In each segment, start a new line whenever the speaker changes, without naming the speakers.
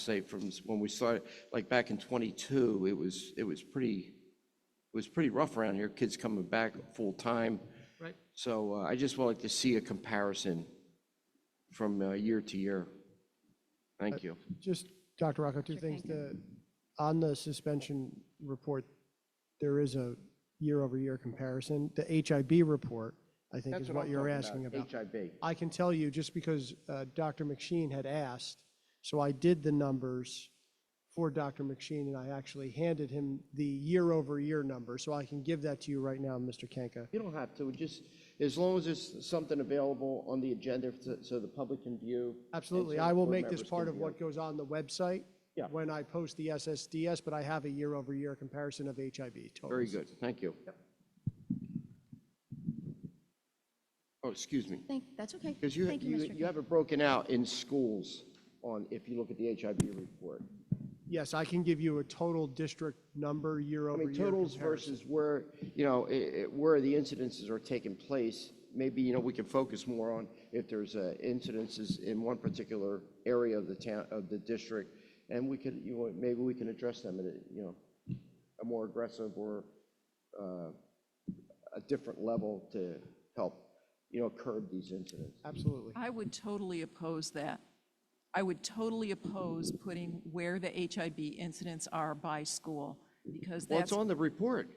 say from s- when we started, like back in '22, it was, it was pretty, it was pretty rough around here, kids coming back full-time.
Right.
So uh, I just would like to see a comparison from uh, year to year. Thank you.
Just, Dr. Rocco, two things. The, on the suspension report, there is a year-over-year comparison. The HIB report, I think, is what you're asking about.
HIB.
I can tell you, just because uh, Dr. McSheen had asked, so I did the numbers for Dr. McSheen, and I actually handed him the year-over-year number, so I can give that to you right now, Mr. Kenka.
You don't have to, just, as long as there's something available on the agenda so- so the public can view. and
Absolutely.
so
I will
board
make this
members can
part of
view.
what goes on the website
Yeah.
when I post the SSDS, but I have a year-over-year comparison of HIB totals.
Very good, thank you. Oh, excuse me.
Thank, that's okay.
Because you,
Thank
you,
Mr.
you have it broken out in schools on, if you look at the HIB report.
Yes, I can give you a total district number
I
year-over-year
mean, totals
comparison.
versus where, you know, i- i- where the incidences are taking place. Maybe, you know, we can focus more on if there's uh, incidences in one particular area of the town, of the district. And we could, you know, maybe we can address them in a, you know, a more aggressive or uh, a different level to help, you know, curb these incidents.
Absolutely.
I would totally oppose that. I would totally oppose putting where the HIB incidents are by school, because
Well, it's
that's.
on the report.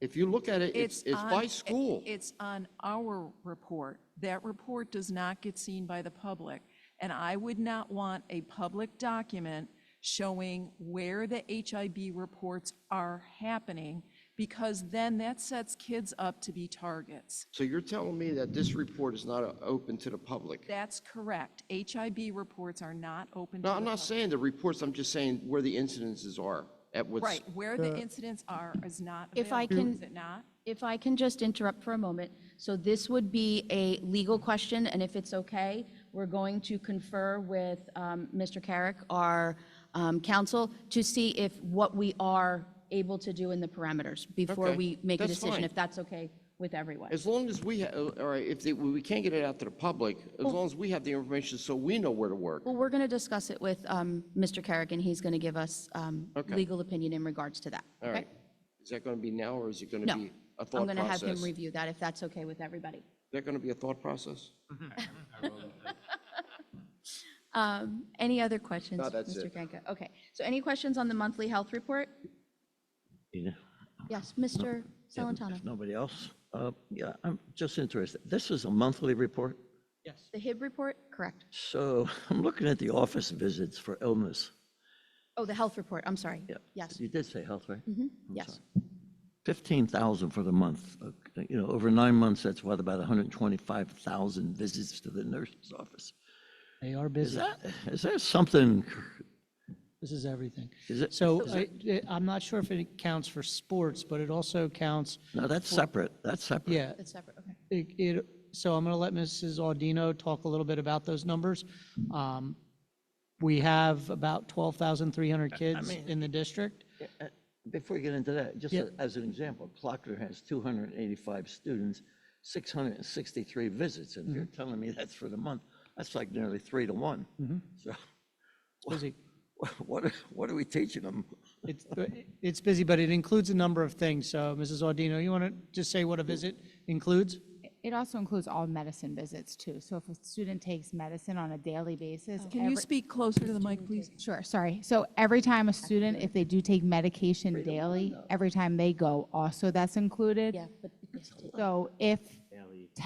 If you look at it, it's, it's
on-
by
it-
school.
It's on our report. That report does not get seen by the public. And I would not want a public document showing where the HIB reports are happening, because then that sets kids up to be targets.
So you're telling me that this report is not uh, open to the public?
That's correct. HIB reports are not open to
No,
the
I'm not
public.
saying the reports, I'm just saying where the incidences are at what's.
Right, where the incidents are is not
If I
available,
can-
is it not?
If I can just interrupt for a moment, so this would be a legal question, and if it's okay, we're going to confer with um, Mr. Carrick, our um, counsel, to see if what we are able to do in the parameters before
Okay,
we make a
that's
decision,
fine.
if that's okay with everyone.
As long as we, ha- uh, all right, if they- we can't get it out to the public, as long as we have the information so we know where to work.
Well, we're going to discuss it with um, Mr. Carrick, and he's going to give us um,
Okay.
legal opinion in regards to that.
All
okay?
right. Is that going to be now or is it going
No,
to be a
I'm
thought
going to have
process?
him
Is
review that, if that's okay with everybody.
that going to be a thought process?
Um, Any other questions?
No, that's
Mr.
it.
Kanka? Okay, so any questions on the monthly health report?
Yeah,
Yes, Mr. Salantano,
If nobody else, uh, yeah, I'm just interested. This is a monthly report,
the HIB report, correct.
so I'm looking at the office visits for illness.
Oh, the health report, I'm sorry.
Yeah.
Yes,
You did say health, right?
yes.
15,000 for the month. Uh, You know, over nine months, that's what, about 125,000 visits to the nurse's office.
They are
Is
busy.
that, is there something,
This is everything.
is it,
So I, I- I'm not sure if it counts for sports, but it also counts,
no, that's separate, that's separate.
yeah.
It's separate, okay.
It, it- so I'm going to let Mrs. Audino talk a little bit about those numbers. Um, We have about 12,300 kids in the district.
Before we get into that, just
Yeah.
a- as an example, Clocker has 285 students, 663 visits, and if you're telling me that's for the month, that's like nearly three to one. So
It's busy.
what, are- what are we teaching them?
It's, it's busy, but it includes a number of things. So Mrs. Audino, you want to just say what a visit includes?
It also includes all medicine visits too. So if a student takes medicine on a daily basis.
Can you
every-
speak closer to the mic, please?
Sure, sorry. So every time a student, if they do take medication daily, every time they go, also that's included.
Yeah, but you have to-
So if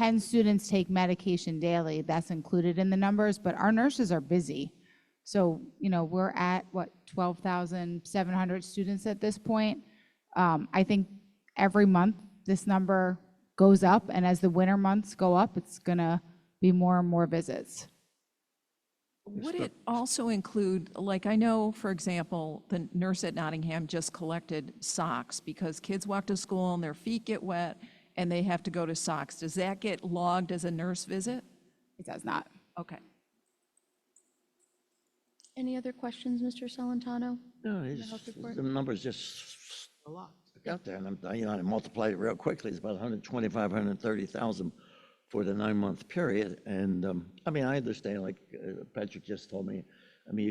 10 students take medication daily, that's included in the numbers, but our nurses are busy. So, you know, we're at, what, 12,700 students at this point. Um, I think every month, this number goes up, and as the winter months go up, it's going to be more and more visits.
Would it also include, like, I know, for example, the nurse at Nottingham just collected socks because kids walk to school and their feet get wet and they have to go to socks. Does that get logged as a nurse visit?
It does not.
Okay.
Any other questions, Mr. Salantano?
No, it's,
health report?
the numbers just out there, and I'm, you know, I multiplied it real quickly, it's about 125, 130,000 for the nine-month period, and, um, I mean, I understand, like uh, Patrick just told me,